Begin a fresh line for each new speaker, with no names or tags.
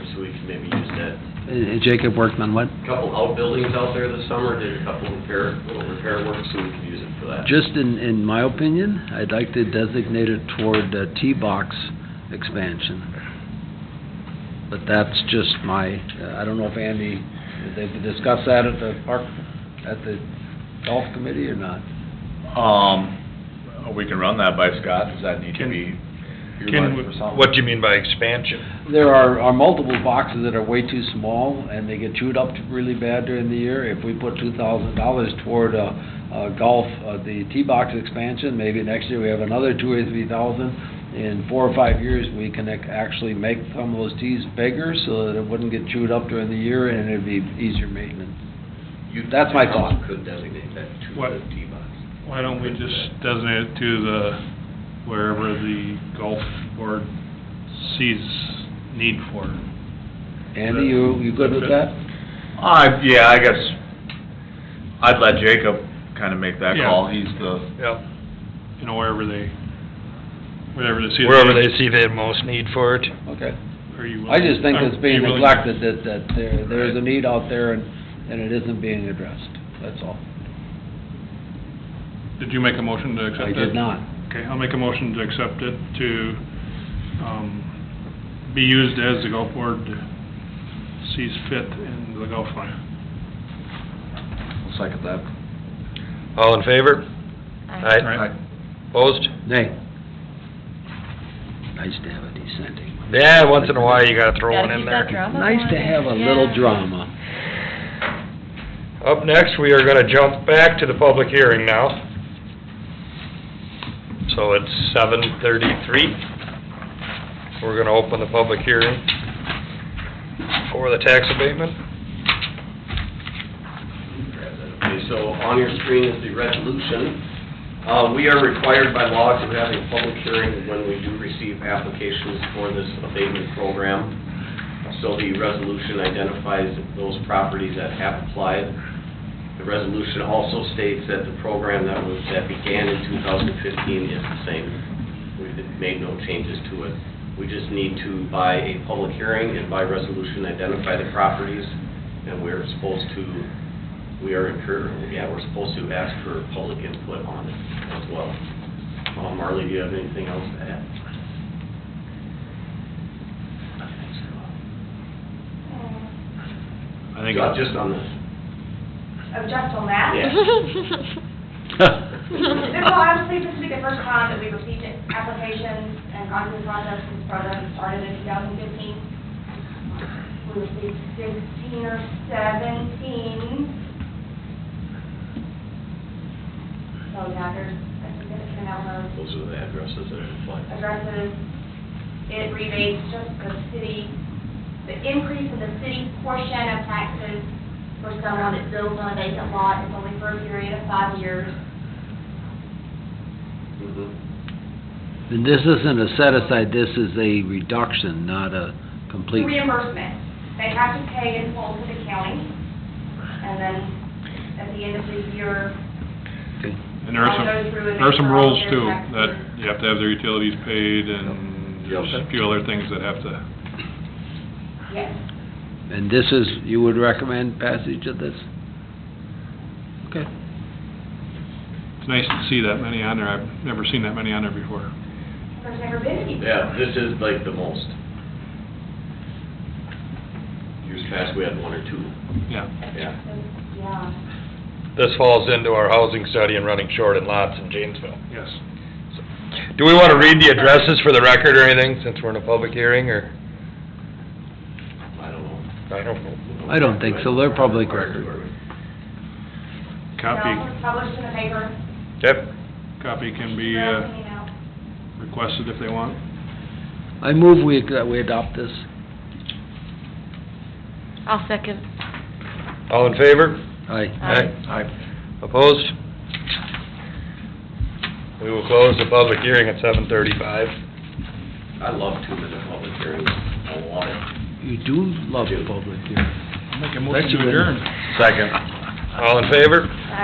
maybe used that.
And Jacob Workman, what,
Couple outbuildings out there this summer, did a couple repair, little repair work, so we could use it for that.
just in, in my opinion, I'd like to designate it toward uh, T-box expansion. But that's just my, uh, I don't know if Andy, did they discuss that at the park, at the golf committee or not?
Um, we can run that by Scott, does that need to be
Can,
earmarked for something?
what do you mean by expansion?
There are, are multiple boxes that are way too small, and they get chewed up really bad during the year. If we put two thousand dollars toward, uh, uh, golf, uh, the tee box expansion, maybe next year we have another two or three thousand. In four or five years, we can ac- actually make some of those tees bigger, so that it wouldn't get chewed up during the year, and it'd be easier maintenance.
You-
that's my thought.
You Could designate that to
What?
the tee box.
Why don't we just designate it to the, wherever the golf board sees need for it?
Andy, you, you good with that?
Uh, yeah, I guess, I'd let Jacob kinda make that
Yeah.
call, he's the,
Yep. You know, wherever they, wherever they see.
Wherever they see the most need for it.
Okay.
Are you
I
willing-
just think
are
it's being
you willing-
neglected, that, that there, there's a need out there, and, and it isn't being addressed, that's all.
Did you make a motion to accept
I
it?
did not.
Okay, I'll make a motion to accept it to, um, be used as the golf board sees fit in the golf line.
I'll second that.
All in favor?
All right.
Opposed?
Nay. Nice to have a dissenting.
Yeah, once in a while you gotta throw
Gotta
one in
keep
there.
that drama
Nice to
going.
have a little
Yeah.
drama.
Up next, we are gonna jump back to the public hearing now. So it's seven thirty-three. We're gonna open the public hearing for the tax abatement.
Grab that. Okay, so on your screen is the resolution. Uh, we are required by law to have a public hearing when we do receive applications for this abatement program. So the resolution identifies those properties that have applied. The resolution also states that the program that was, that began in 2015 is the same. We did- made no changes to it. We just need to, by a public hearing and by resolution, identify the properties, and we're supposed to we are incur, yeah, we're supposed to ask for public input on it as well. Uh, Marley, do you have anything else to add?
I think,
Ju- Just on this.
object on that.
Yeah.
This will obviously, this will be the first time that we've received applications and gone through the process since the program started in 2015. We received 16 or 17. So yeah, there's a significant amount of
Those are the addresses that are applied.
addresses. It rebates just the city, the increase in the city portion of taxes for someone that builds on a vacant lot is only for a period of five years.
Mhm.
And this isn't a set aside, this is a reduction, not a complete.
reimbursement. They have to pay in full to the county, and then at the end of the year,
Okay.
And there are some,
I'll go through and
there are some
make sure all
rules
their
too,
taxes
that
are-
you have to have their utilities paid and
Yep.
there's a few other things that have to,
yes.
And this is, you would recommend passage of this? Okay.
it's nice to see that many on there. I've never seen that many on there before.
There's never been any.
Yeah, this is like the most. Years past, we had one or two.
Yeah.
Yeah.
Yeah.
This falls into our housing study and running short in lots in Janesville.
Yes.
Do we wanna read the addresses for the record or anything, since we're in a public hearing, or?
I don't know.
I don't know.
I don't think so. They're public record.
It
Copy,
was published in the paper.
Yep.
copy can be
Right,
uh,
you know.
requested if they want.
I move we, that we adopt this.
I'll second.
All in favor?
Aye.
Opposed? We will close the public hearing at seven thirty-five.
I love two-minute public hearings. I love it.
You do love the public here.
Make a
motion to adjourn.
Second. All in favor?